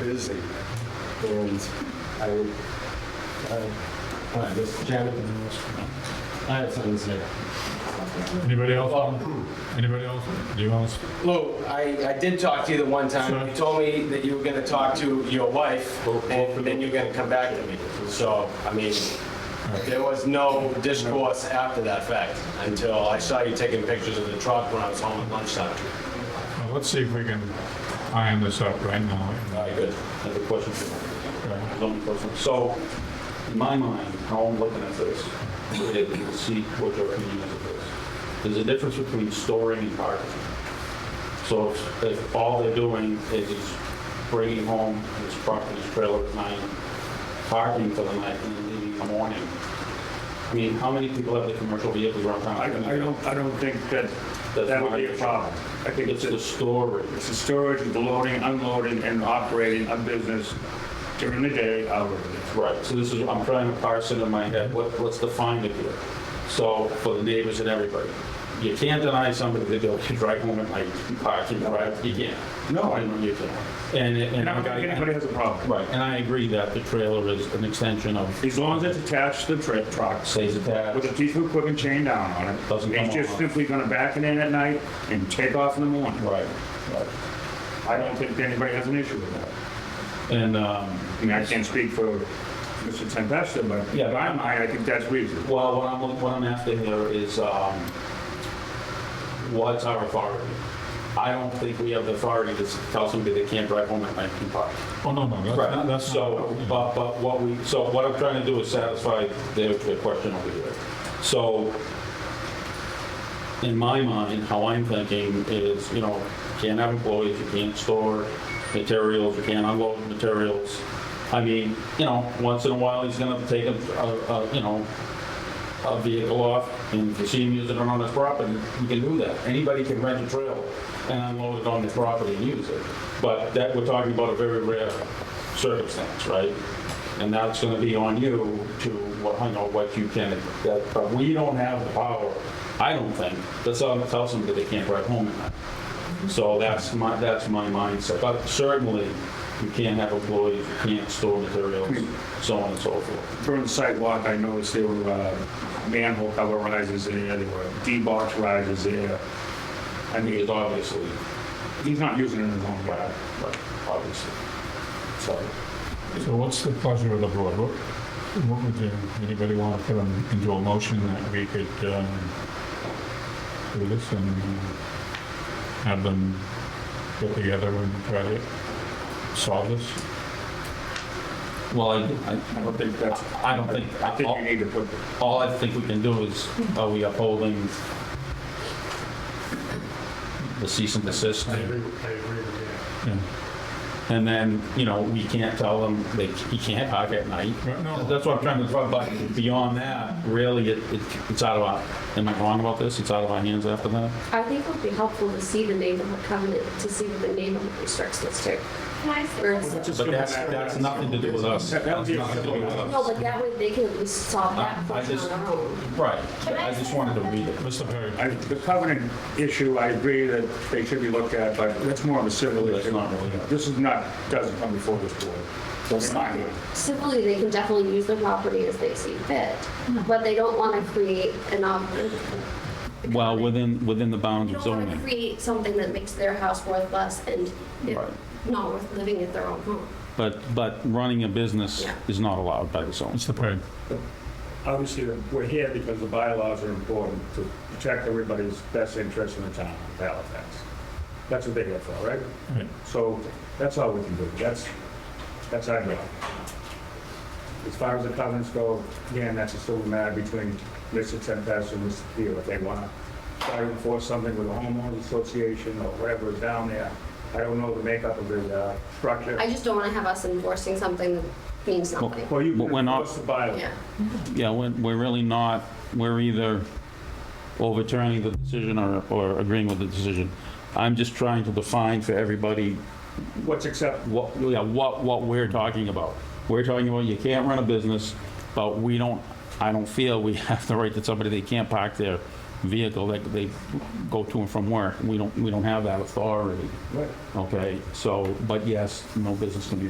busy. And I, uh, hi, this is Janet. I have something to say. Anybody else? Anybody else? Anyone else? Lou, I, I did talk to you the one time. Sure. You told me that you were gonna talk to your wife, and then you're gonna come back to me. So, I mean, there was no discourse after that fact, until I saw you taking pictures of the truck when I was home at lunchtime. Well, Let's see if we can iron this up right now. Very good. I have a question for Okay. you. Zoning person. So, in my mind, how I'm looking at this, if you see what your opinion is of this, there's a difference between storing and parking. So if- if all they're doing is he's bringing home his truck and his trailer at night, parking for the night and then leaving in the morning, I mean, how many people have their commercial vehicles around town? I I don't, I don't think that, That's that would my be a issue. problem. I think It's it's, the it's storage. the storage, the loading, unloading, and operating a business during the day, out of the day. Right, so this is, I'm trying to parse it in my head, what, what's defined it here? So, for the neighbors and everybody, you can't deny somebody the ability to drive home at night, park and drive, you can't. No, I- You can't. And, and And I I don't think anybody has a problem. right, and I agree that the trailer is an extension of, As long as it's attached to the tra- truck, stays with a attached. piece of equipment chain down on it. Doesn't come He's just off. simply gonna back it in at night and take off in the morning. Right, right. I don't think anybody has an issue with that. And, um, I mean, I can't speak for Mr. Tempesta, but Yeah. by my, I think that's reasonable. well, what I'm, what I'm after here is, um, what's our authority? I don't think we have the authority to tell somebody they can't drive home at night and park. Oh, no, no, that's not, Right, that's so, not. but, but what we, so what I'm trying to do is satisfy their, their question over here. So, in my mind, how I'm thinking is, you know, can't have employees, you can't store materials, you can't unload materials. I mean, you know, once in a while, he's gonna take a, a, a, you know, a vehicle off, and if you see him using it on his property, you can do that. Anybody can rent a trailer and unload it on their property and use it. But that, we're talking about a very rare circumstance, right? And that's gonna be on you to, what, you know, what you can, that, but we don't have the power, I don't think, that's all, tell somebody they can't drive home at night. So that's my, that's my mindset, but certainly, you can't have employees, you can't store materials, so on and so forth. During the sidewalk, I noticed there were uh, manhole cover rises there, there were D-box rises there. I mean, Because obviously, he's not using it in his own Right, yard. right, obviously. So, So what's the pleasure of the board? What, what would you, anybody want to put in- into a motion that we could, um, do this and have them get together and try to solve this? well, I, I don't think that's, I- I don't think, I think you all- need to put, all I think we can do is, are we upholding the cease and desist? I agree with that. Yeah. And then, you know, we can't tell them they, you can't park at night. Right, no. That's what I'm trying to, talk about. beyond that, really, it, it- it's out of our, am I wrong about this? It's out of our hands after that? I think it would be helpful to see the neighborhood covenant, to see what the neighborhood restricts us to. Can I say Where something? it's- But that's, that's nothing to do with us. That- that would be- That's nothing to do with us. No, but that way they can at least solve I- I that portion just- on their own. Right, Can I I just say wanted to read it. Mr. Perry? I- the covenant issue, I agree that they should be looked at, but that's more of a civil That's issue. not really- This is not, doesn't come before this board. In my mind. Simply, they can definitely use their property as they see fit, but they don't want to create an, op- Well, within, within the bounds they of don't want to zoning. create something that makes their house worth less and if Right. not worth living at their own home. But, but running a business Yeah. is not allowed by the zones. Mr. Perry? Obviously, we're here because the bylaws are important to protect everybody's best interest in the town of Halifax. That's what they're here for, right? Right. So that's all we can do. That's, that's our job. As far as the covenants go, again, that's a civil matter between Mr. Tempest and Mr. Peel. If they want to try to enforce something with the homeowners association or whatever is down there, I don't know the makeup of the uh, structure. I just don't want to have us enforcing something that means nothing. Well, you But we're can not- enforce the bylaw. Yeah. Yeah, we're, we're really not, we're either overturning the decision or, or agreeing with the decision. I'm just trying to define for everybody What's acceptable what, yeah, what, what we're talking about. We're talking about you can't run a business, but we don't, I don't feel we have the right that somebody, they can't park their vehicle, that they go to and from work. We don't, we don't have that authority. Right. Okay, so, but yes, no business can be